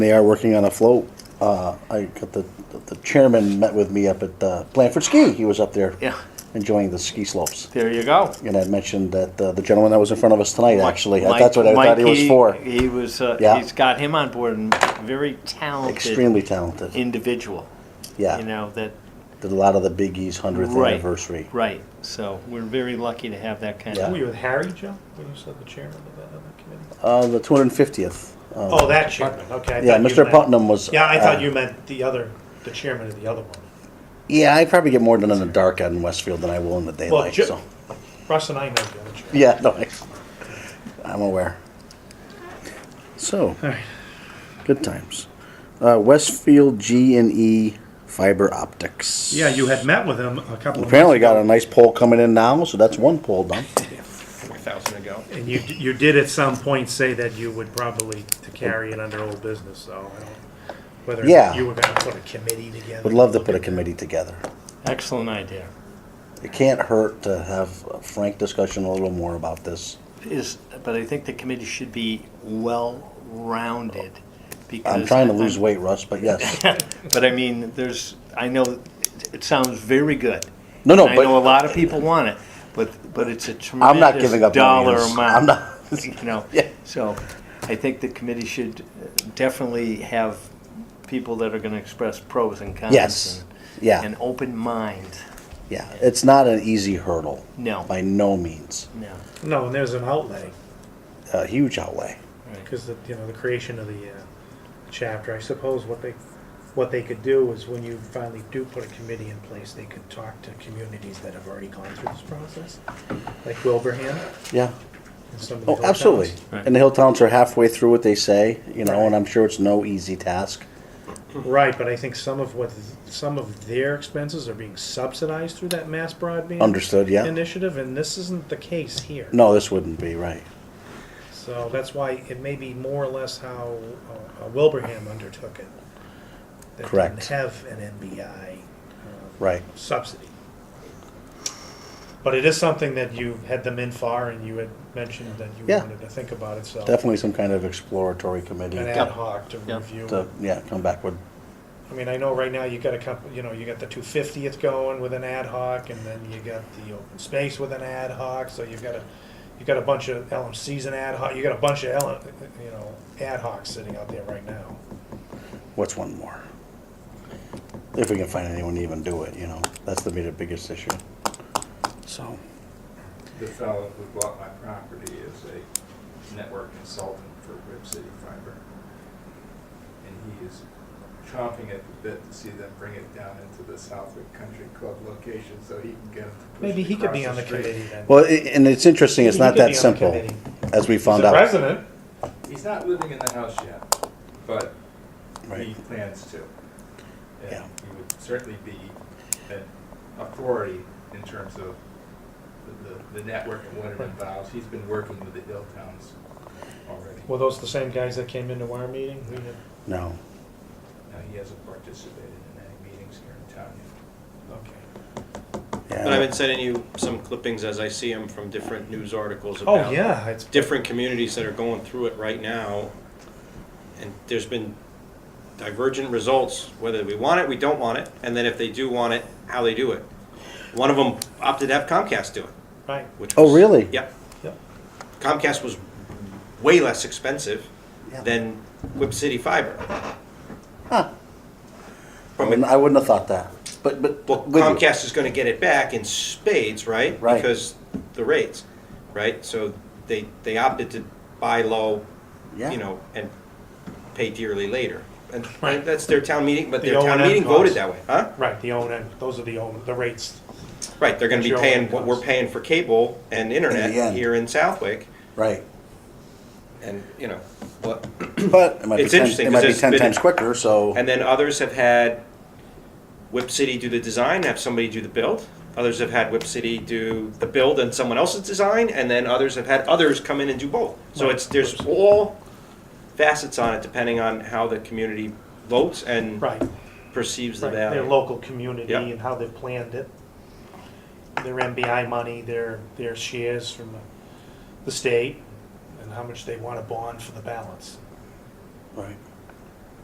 They are working on a float. Uh, I got the, the chairman met with me up at uh, Blanford Ski. He was up there Yeah. enjoying the ski slopes. There you go. And I mentioned that uh, the gentleman that was in front of us tonight, actually, Mike- that's what I Mike, thought he was for. He was, uh, Yeah. he's got him on board and very talented Extremely talented. individual. You Yeah, know, that, did a lot of the Big E's 100th Right. anniversary. right. So we're very lucky to have that kind Yeah. of. Were you with Harry, Joe, when you said the chairman of that other committee? Uh, The 250th. uh, Oh, that chairman, Um, okay. I Yeah, thought you Mr. meant- Putnam was. Yeah, I uh, thought you meant the other, the chairman of the other one. Yeah, I probably get more done in the dark out in Westfield than I will in the Well, daylight, Ju- so. Russ and I know the other chairman. Yeah, no, I- I'm aware. So, good times. Uh, Westfield G and E Fiber Optics. Yeah, you had met with him a couple of. Apparently months got ago, a nice poll coming in now, so that's one poll done. four thousand ago. And you, you did at some point say that you would probably to carry it under old business, so I don't, whether Yeah. you were gonna put a committee together. Would love to put a committee together. Excellent idea. It can't hurt to have a frank discussion a little more about this. Is, but I think the committee should be well-rounded because. I'm trying to lose weight, Russ, but yes. But I mean, there's, I know, it- it sounds very good. No, no, And I know a but lot of people want it, but, but it's a I'm not tremendous giving up dollar millions. I'm amount. not, you know. Yeah. So I think the committee should uh, definitely have people that are gonna express pros and cons. Yes. and- Yeah. An open mind, yeah, it's not an easy hurdle, no, by no means. no, No, and there's an outlay, A huge outlay. because the, you know, the creation of the, uh, chapter, I suppose what they, what they could do is when you finally do put a committee in place, they could talk to communities that have already gone through this process, like Wilbraham Yeah. and some of the. Oh, hill absolutely. towns. Right. And the hill towns are halfway through what they say, you know, and I'm sure it's no easy task. Right, but I think some of what, some of their expenses are being subsidized through that mass broadband. Understood, yeah. initiative, and this isn't the case here. No, this wouldn't be right. So that's why it may be more or less how uh, uh, Wilbraham undertook it. That Correct. Didn't have an MBI uh, Right. subsidy. But it is something that you had them in for, and you had mentioned that you Yeah. wanted to think about it. So Definitely some kind of exploratory committee an to, ad hoc to Yeah. review. yeah, come back with. I mean, I know right now you got a couple. You know, you got the two fiftieth going with an ad hoc, and then you got the open space with an ad hoc. So you've got a, you got a bunch of LMCs and ad hoc. You got a bunch of L, you know, ad hocs sitting out there right now. What's one more? If we can find anyone to even do it, you know, that's the big- biggest issue. So, The fellow who bought my property is a network consultant for Rip City Fiber. And he is chomping at the bit to see them bring it down into the Southwick Country Club location so he can get them to push Maybe it he could be across on the street. committee then. well, i- and it's interesting, it's He not could that be on the simple, committee. as we He's found a out. resident. He's not living in the house yet, but he Right. plans to. And Yeah. he would certainly be an authority in terms of the, the, the network and what it involves. He's been working with the hill towns already. Were those the same guys that came into our meeting? We had, No, Now, he hasn't participated in any meetings here in town okay. But I've yeah, been sending you some clippings as I see them from different news articles about Oh yeah, it's different communities that are going through it right now. And there's been divergent results, whether we want it, we don't want it, and then if they do want it, how they do it. One of them opted to have Comcast do it, right. which Oh, was- really? Yep. Yep. Comcast was way less expensive Yeah. than Whip City Fiber. Huh. I From a wouldn't- I wouldn't have thought that, but, but. Well, with you. Comcast is gonna get it back in spades, right? Right. Because the rates, right? So they, they opted to buy low, Yeah. you know, and pay dearly later. And and that's their town meeting, but The their town O&M meeting voted costs. that way, huh? Right, the own end. Those are the own the rates. Mm-hmm. Right, they're gonna be Your O&M paying what we're costs. paying for cable and internet end. here in Southwick, Right. and, you know, what, But it might be It's ten, interesting, it might 'cause be it's ten been- times quicker, so, And then others have had Whip City do the design, have somebody do the build. Others have had Whip City do the build and someone else's design, and then others have had others come in and do both. So it's there's all facets on it depending on how the community votes and Right. perceives the Right, their value. local community Yeah. and how they've planned it. Their MBI money, their, their shares from the, the state, and how much they want to bond for the balance. right.